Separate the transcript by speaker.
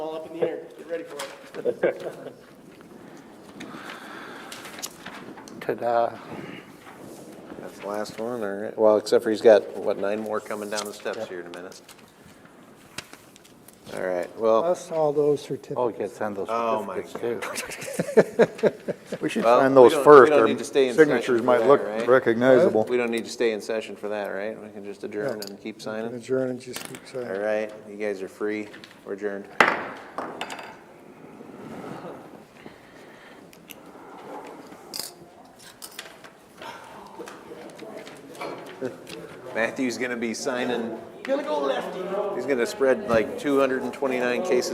Speaker 1: winter. Get ready for it.
Speaker 2: uh,
Speaker 3: Ta-da.
Speaker 4: That's the last one, all right. Well, except for he's got, what, nine more coming down the steps here in a minute. All right, well,
Speaker 5: Plus all those
Speaker 3: Oh,
Speaker 5: certificates.
Speaker 3: you could send those
Speaker 4: Oh, my
Speaker 3: certificates too.
Speaker 2: We should
Speaker 4: Well,
Speaker 2: sign
Speaker 4: we
Speaker 2: those
Speaker 4: don't- we
Speaker 2: first.
Speaker 4: don't
Speaker 2: Our
Speaker 4: need to stay in
Speaker 2: Signatures
Speaker 4: session for
Speaker 2: might
Speaker 4: that,
Speaker 2: look
Speaker 4: right?
Speaker 2: recognizable.
Speaker 4: we don't need to stay in session for that, right? We can just adjourn and keep signing.
Speaker 5: Adjourn and just keep saying.
Speaker 4: All right, you guys are free. We're adjourned. Matthew's gonna be signing. Gonna go lefty. He's gonna spread like 229 cases